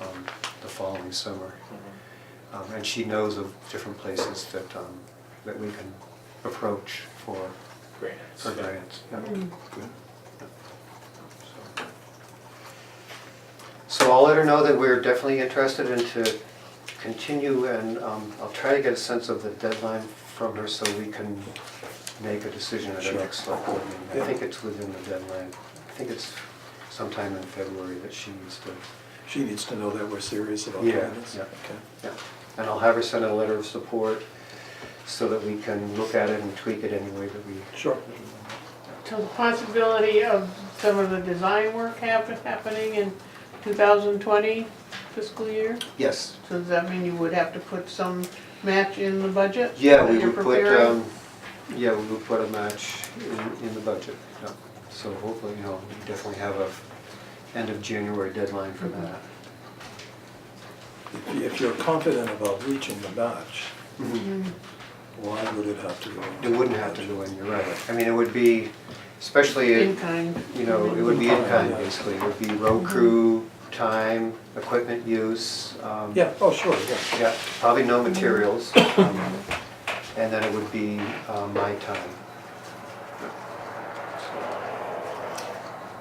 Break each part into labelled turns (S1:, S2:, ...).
S1: um, following summer. Um, And she knows of different places that, um, that we can approach for,
S2: grants.
S1: for grants. Yeah. Good. So- So I'll let her know that we're definitely interested in to continue and um, I'll try to get a sense of the deadline from her so we can make a decision at the
S3: Sure.
S1: next select board meeting.
S3: Yeah.
S1: I think it's within the deadline. I think it's sometime in February that she needs to,
S3: She needs to know that we're serious about
S1: Yeah,
S3: doing this.
S1: yeah.
S3: Okay.
S1: yeah. And I'll have her send a letter of support so that we can look at it and tweak it any way that we
S3: Sure.
S4: So the possibility of some of the design work happen, happening in 2020 fiscal year?
S1: Yes,
S4: So does that mean you would have to put some match in the budget?
S1: yeah, we
S4: that you're
S1: would put,
S4: preparing?
S1: um, yeah, we would put a match in, in the budget, yeah. So hopefully, you know, we definitely have a end of January deadline for
S4: Mm-hmm.
S1: that.
S3: If you- If you're confident about reaching the match,
S4: Mm-hmm.
S1: Mhm.
S3: why would it have to go?
S1: It wouldn't have to go in, you're right. I mean, it would be, especially,
S4: In Mm-hmm.
S1: it-
S4: kind.
S1: you know, it would be in kind, basically. It would be road crew, time, equipment use, um,
S3: Yeah, oh, sure, yeah.
S1: yeah, probably no materials. um, And then it would be uh, my time.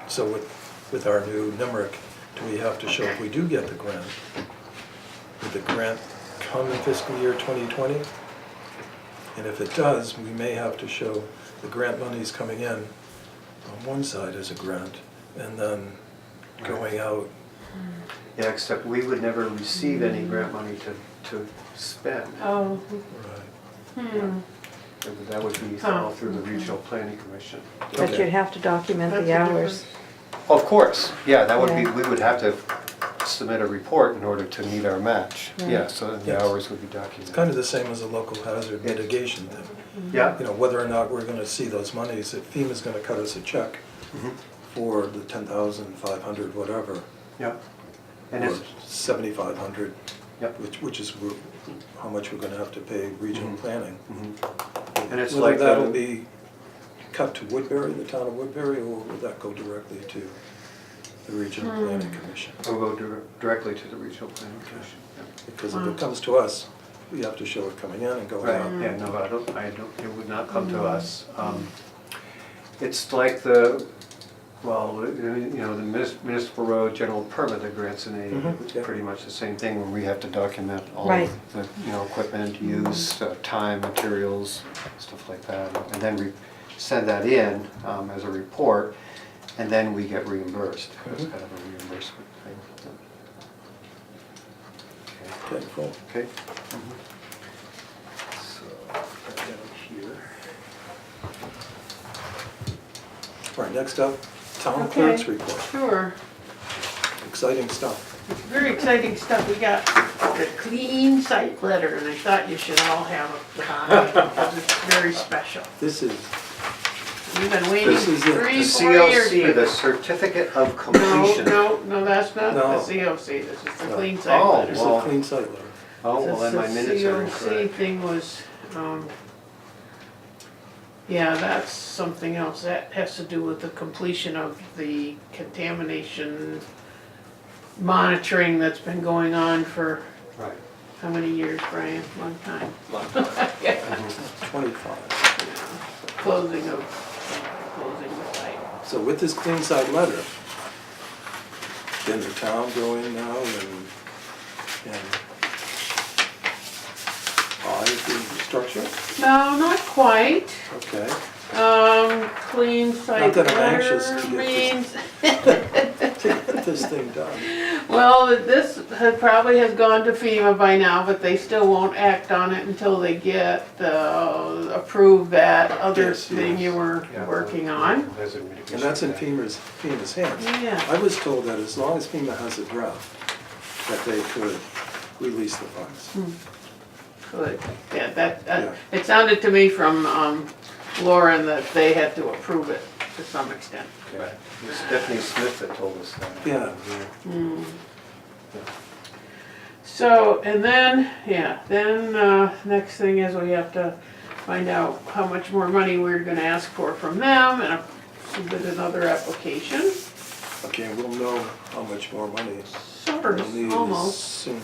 S3: So with, with our new NIMRIC, do we have to show if we do get the grant? Would the grant come in fiscal year 2020? And if it does, we may have to show the grant money's coming in on one side as a grant and then going out.
S1: Yeah, except we would never receive any grant money to, to spend.
S4: Oh,
S3: Right.
S4: hmm,
S1: That would be all through the regional planning commission.
S5: But
S3: Okay.
S5: you'd have to document
S4: That's
S5: the
S4: a
S5: hours.
S1: Of course, yeah, that would be,
S5: Yeah.
S1: we would have to submit a report in order to meet our match.
S5: Right.
S1: Yeah, so then the
S3: Yes.
S1: hours would be
S3: It's kind
S1: documented.
S3: of the same as a local hazard mitigation thing.
S1: Yeah,
S3: You know, whether or not we're gonna see those monies, if FEMA's gonna cut us a check
S1: Mhm.
S3: for the ten thousand, five hundred, whatever,
S1: yeah. And
S3: or
S1: it's,
S3: seventy-five hundred,
S1: Yep.
S3: which, which is we're- how much we're gonna have to pay regional
S1: Mhm.
S3: planning.
S1: mhm. And it's
S3: Whether
S1: like the-
S3: that'll be cut to Woodbury, the town of Woodbury, or will that go directly to the regional planning commission?
S1: we'll go dir- directly to the regional planning commission. yeah.
S3: Because if it comes to us, we have to show it coming in and going out.
S1: Right, yeah, no, I don't, I don't, it would not come to us. Um, It's like the, well, you know, the munis- municipal road general permit that grants an aid,
S3: Mhm,
S1: it's
S3: yeah.
S1: pretty much the same thing, where we have to document all
S5: Right.
S1: of the, you know, equipment, use, uh, time, materials, stuff like that. And then we send that in um, as a report, and then we get reimbursed. It's kind of a reimbursement thing. Okay.
S3: Okay, cool.
S1: Okay. So, put that down here.
S3: All right, next up, town clerk's
S4: Okay.
S3: report.
S4: Sure,
S3: Exciting stuff.
S4: very exciting stuff. We got the clean site letter and I thought you should all have a copy because it's very special.
S3: This is,
S4: We've been waiting
S3: This is it.
S4: three,
S1: The
S4: four years.
S1: CLC,
S4: for
S1: the
S4: this.
S1: certificate of
S4: No,
S1: completion.
S4: no, no, that's not the
S3: No.
S4: COC, this is the
S3: No.
S4: clean site
S1: Oh,
S4: letter.
S3: this is
S1: Well-
S3: a clean site letter.
S1: Oh, well, then my
S4: This
S1: minutes are
S4: COC
S1: incorrect.
S4: thing was, um, yeah, that's something else, that has to do with the completion of the contamination monitoring that's been going on for
S1: Right.
S4: how many years, Brian? Long time.
S3: Twenty-five.
S4: Closing of, closing the site.
S3: So with this clean site letter, can the town go in now and, and buy the structure?
S4: No, not quite.
S3: Okay,
S4: Um, clean site
S3: that I'm anxious
S4: letter
S3: to get this-
S4: means,
S3: get this thing done.
S4: well, this had- probably has gone to FEMA by now, but they still won't act on it until they get, uh, approve that other
S3: Yes,
S4: thing you
S3: yes.
S4: were
S1: Yeah.
S4: working on.
S1: Hazard mitigation.
S3: And that's in
S1: plan.
S3: FEMA's, FEMA's hands.
S4: Yeah.
S3: I was told that as long as FEMA has a draft, that they could release the funds.
S4: Good, yeah, that,
S3: Yeah.
S4: that- it sounded to me from, um, Lauren that they had to approve it to some extent.
S1: Okay. It was Stephanie Smith that told us that.
S3: Yeah.
S4: So, and then, yeah, then, uh, next thing is we have to find out how much more money we're gonna ask for from them and submit another application.
S3: Okay, we'll know how much more money
S4: sort of, almost.
S3: Soon.